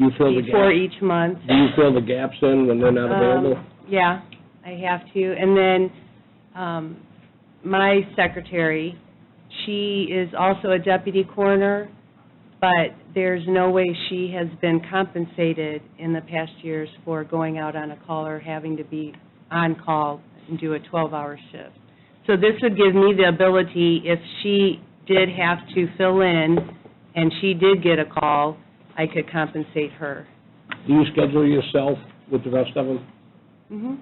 You fill the before gaps, each month. do you fill the gaps in when they're not available? Um, Yeah, I have to. And then um, my secretary, she is also a deputy coroner, but there's no way she has been compensated in the past years for going out on a call or having to be on call and do a 12-hour shift. So this would give me the ability, if she did have to fill in and she did get a call, I could compensate her. Do you schedule yourself with the rest of them? Mhm.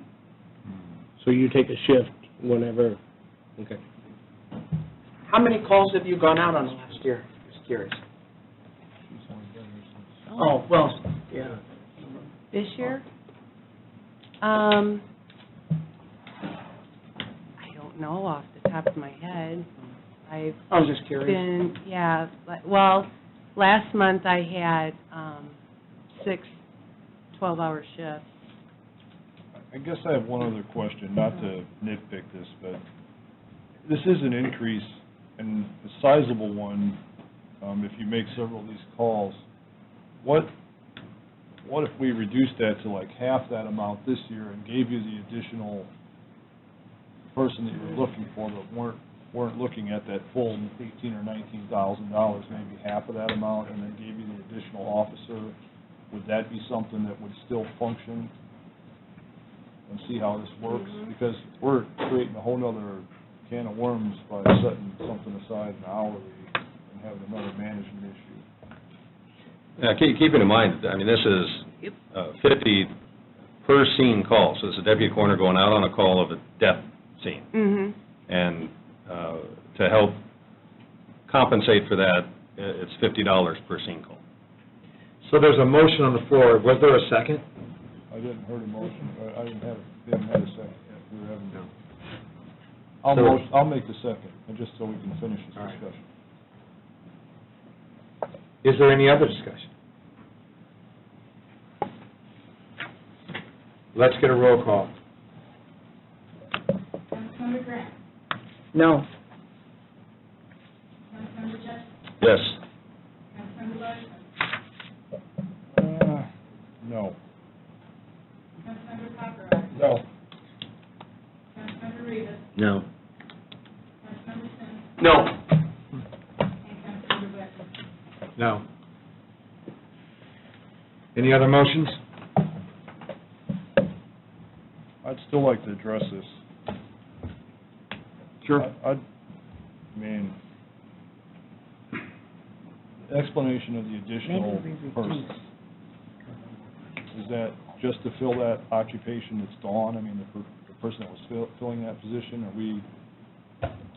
So you take a shift whenever, okay. How many calls have you gone out on last year? Just curious. Oh, well, yeah. This year? Um, I don't know off the top of my head. I've I was just curious. been, yeah, like- well, last month I had, um, six 12-hour shifts. I guess I have one other question, not to nitpick this, but this is an increase, and a sizable one, um, if you make several of these calls. What, what if we reduced that to like half that amount this year and gave you the additional person that you were looking for, but weren't, weren't looking at that full eighteen or nineteen thousand dollars, maybe half of that amount, and then gave you the additional officer? Would that be something that would still function and see how this works, because we're creating a whole nother can of worms by setting something aside an hourly and having another management issue. Now, keep, keep in mind, I mean, this is uh, fifty per scene call, so it's a deputy coroner going out on a call of a death scene. Mm-hmm. And uh, to help compensate for that, i- it's fifty dollars per scene call. So there's a motion on the floor. Was there a second? I didn't heard a motion, or I didn't have, didn't have a second, we were having. I'll, So- mo- I'll make the second, and just so we can finish this All right. discussion. Is there any other discussion? Let's get a roll call. Councilmember Grant, No. Councilmember Justin, Yes. Councilmember Larson, Uh, No. Councilmember Paparad, No. Councilmember Rivas, No. Councilmember Sims, No. and Councilmember Blackman. No. Any other motions? I'd still like to address this. I, I'd- I mean, the explanation of the additional person, is that just to fill that occupation that's gone? I mean, the per- the person that was fill- filling that position, are we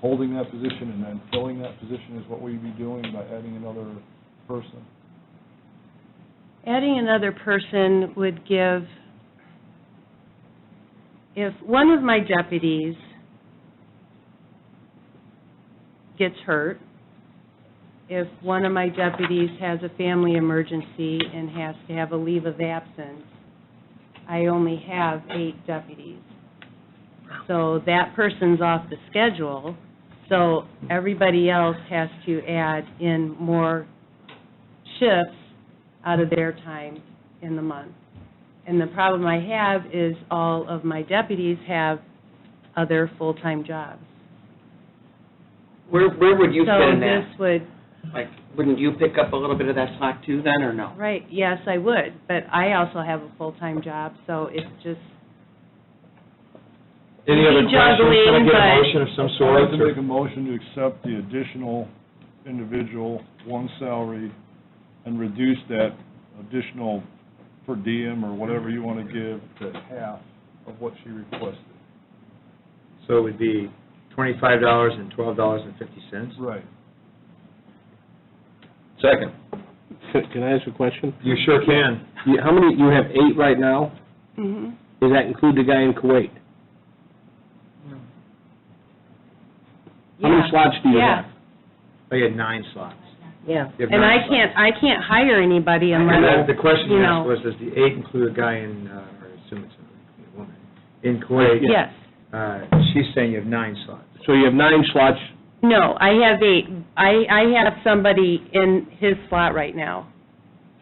holding that position and then filling that position is what we'd be doing by adding another person? Adding another person would give, if one of my deputies gets hurt, if one of my deputies has a family emergency and has to have a leave of absence, I only have eight deputies. So that person's off the schedule, so everybody else has to add in more shifts out of their time in the month. And the problem I have is all of my deputies have other full-time jobs. Where, where would you fit in So that? this would, Like, wouldn't you pick up a little bit of that slack too then, or no? right, yes, I would, but I also have a full-time job, so it's just, Any other Juggling, questions? Can I get a but- motion of some I'd like to make sort? a motion to accept the additional individual, one salary, and reduce that additional per diem or whatever you want to give to half of what she requested. So it would be twenty-five dollars and twelve dollars and fifty cents? Right. Second. Can- Can I ask a question? You sure can. You- How many, you have eight right now? mhm. Does that include the guy in Kuwait? How many Yeah. slots do you have? Oh, you had nine slots. Yeah, You have and I nine can't, I can't hire anybody And unless, that, the question you you know. asked was, does the eight include a guy in, uh, or I assume it's a woman, in Kuwait? yes. Uh, she's saying you have nine slots. So you have nine slots, No, I have eight, I, I have somebody in his slot right now.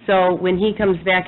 So when he comes back